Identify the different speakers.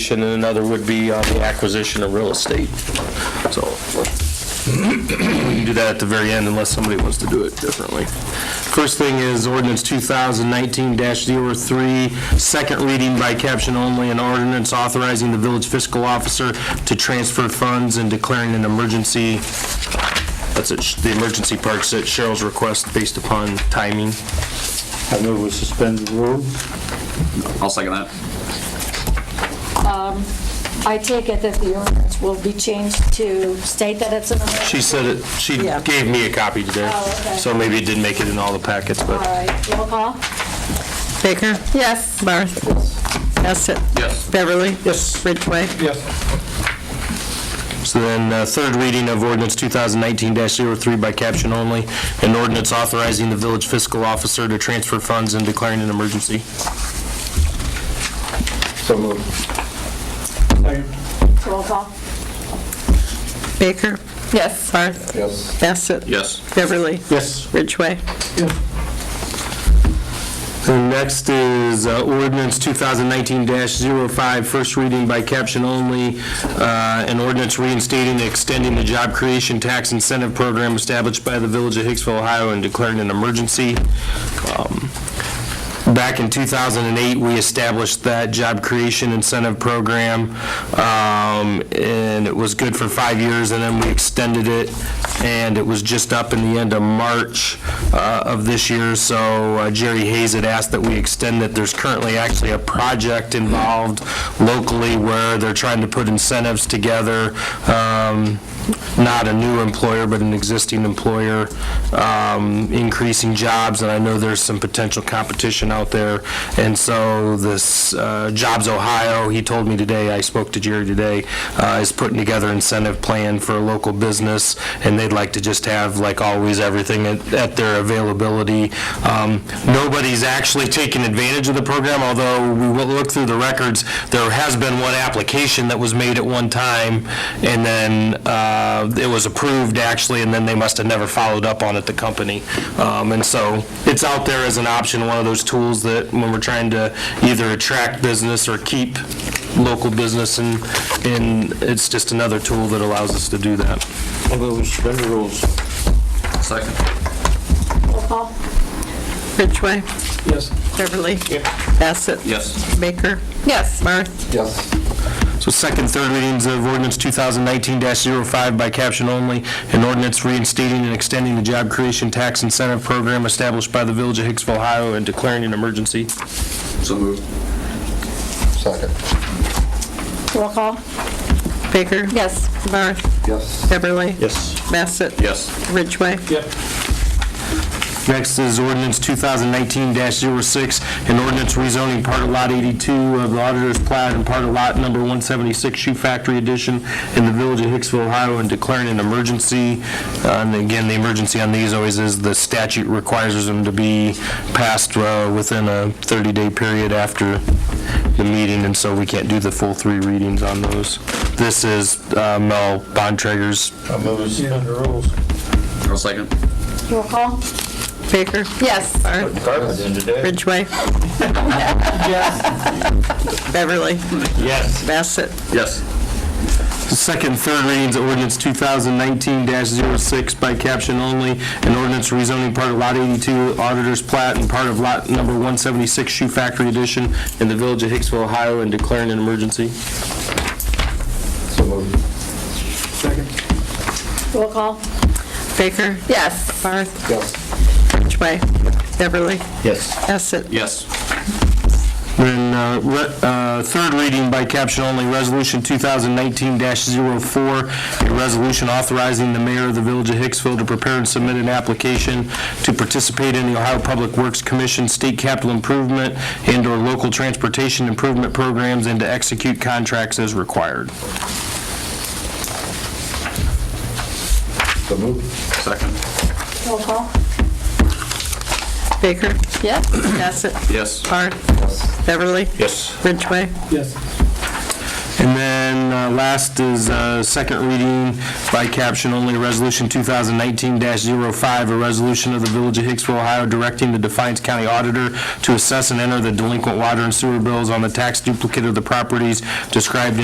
Speaker 1: and another would be on the acquisition of real estate. So we can do that at the very end unless somebody wants to do it differently. First thing is ordinance 2019-03, second reading by caption only, an ordinance authorizing the village fiscal officer to transfer funds and declaring an emergency. That's it, the emergency parts at Cheryl's request based upon timing.
Speaker 2: I move we suspend the rules.
Speaker 3: I'll second that.
Speaker 4: I take it that the ordinance will be changed to state that it's an emergency?
Speaker 1: She said it, she
Speaker 4: Yeah.
Speaker 1: gave me a copy today.
Speaker 4: Oh, okay.
Speaker 1: So maybe it didn't make it in all the packets,
Speaker 4: All
Speaker 1: but.
Speaker 4: right, roll call?
Speaker 5: Baker?
Speaker 4: Yes.
Speaker 5: Barth? Bassett?
Speaker 3: Yes.
Speaker 5: Beverly?
Speaker 1: Yes.
Speaker 5: Ridgway?
Speaker 1: So then, uh, third reading of ordinance 2019-03 by caption only, an ordinance authorizing the village fiscal officer to transfer funds and declaring an emergency.
Speaker 4: Roll call?
Speaker 5: Baker? Yes. Barth?
Speaker 2: Yes.
Speaker 5: Bassett?
Speaker 3: Yes.
Speaker 5: Beverly?
Speaker 1: Yes.
Speaker 5: Ridgway?
Speaker 1: And next is uh, ordinance 2019-05, first reading by caption only, uh, an ordinance reinstating and extending the job creation tax incentive program established by the Village of Hicksville, Ohio, and declaring an emergency. Um, Back in 2008, we established that job creation incentive program, um, and it was good for five years, and then we extended it, and it was just up in the end of March uh, of this year, so uh, Jerry Hayes had asked that we extend it. There's currently actually a project involved locally where they're trying to put incentives together, um, not a new employer, but an existing employer, um, increasing jobs, and I know there's some potential competition out there. And so this uh, Jobs Ohio, he told me today, I spoke to Jerry today, uh, is putting together incentive plan for a local business, and they'd like to just have, like always, everything at at their availability. Um, Nobody's actually taken advantage of the program, although we will look through the records, there has been one application that was made at one time, and then uh, it was approved, actually, and then they must have never followed up on it, the company. Um, And so it's out there as an option, one of those tools that when we're trying to either attract business or keep local business, and and it's just another tool that allows us to do that.
Speaker 2: I move we suspend the rules.
Speaker 3: Second.
Speaker 4: Roll call?
Speaker 5: Ridgway?
Speaker 2: Yes.
Speaker 5: Beverly? Bassett?
Speaker 3: Yes.
Speaker 5: Baker? Yes. Barth?
Speaker 2: Yes.
Speaker 1: So second, third readings of ordinance 2019-05 by caption only, an ordinance reinstating and extending the job creation tax incentive program established by the Village of Hicksville, Ohio, and declaring an emergency.
Speaker 3: So moved.
Speaker 2: Second.
Speaker 4: Roll call?
Speaker 5: Baker?
Speaker 4: Yes.
Speaker 5: Barth?
Speaker 2: Yes.
Speaker 5: Beverly?
Speaker 1: Yes.
Speaker 5: Bassett?
Speaker 3: Yes.
Speaker 5: Ridgway?
Speaker 1: Next is ordinance 2019-06, an ordinance rezoning part of Lot 82 of the Auditor's Plat and part of Lot Number 176 Shoe Factory Edition in the Village of Hicksville, Ohio, and declaring an emergency. Uh, And again, the emergency on these always is the statute requires them to be passed uh, within a 30-day period after the meeting, and so we can't do the full three readings on those. This is uh, Mel Bontrager's
Speaker 2: I move we suspend the rules.
Speaker 3: I'll second.
Speaker 4: Roll call?
Speaker 5: Baker?
Speaker 4: Yes.
Speaker 5: Barth?
Speaker 2: Carpet in today.
Speaker 5: Ridgway? Beverly?
Speaker 2: Yes.
Speaker 5: Bassett?
Speaker 3: Yes.
Speaker 1: Second, third readings of ordinance 2019-06 by caption only, an ordinance rezoning part of Lot 82 Auditor's Plat and part of Lot Number 176 Shoe Factory Edition in the Village of Hicksville, Ohio, and declaring an emergency.
Speaker 2: So moved.
Speaker 4: Roll call?
Speaker 5: Baker?
Speaker 4: Yes.
Speaker 5: Barth?
Speaker 2: Yes.
Speaker 5: Ridgway? Beverly?
Speaker 1: Yes.
Speaker 5: Bassett?
Speaker 3: Yes.
Speaker 1: Then, uh, re- uh, third reading by caption only, Resolution 2019-04, a resolution authorizing the mayor of the Village of Hicksville to prepare and submit an application to participate in the Ohio Public Works Commission State Capital Improvement and/or Local Transportation Improvement Programs and to execute contracts as required.
Speaker 2: So moved.
Speaker 3: Second.
Speaker 4: Roll call?
Speaker 5: Baker?
Speaker 4: Yes.
Speaker 5: Bassett?
Speaker 3: Yes.
Speaker 5: Barth? Beverly?
Speaker 1: Yes.
Speaker 5: Ridgway?
Speaker 1: And then uh, Last is uh, second reading by caption only, Resolution 2019-05, a resolution of the Village of Hicksville, Ohio, directing the Defiance County Auditor to assess and enter the delinquent water and sewer bills on the tax duplicate of the properties described in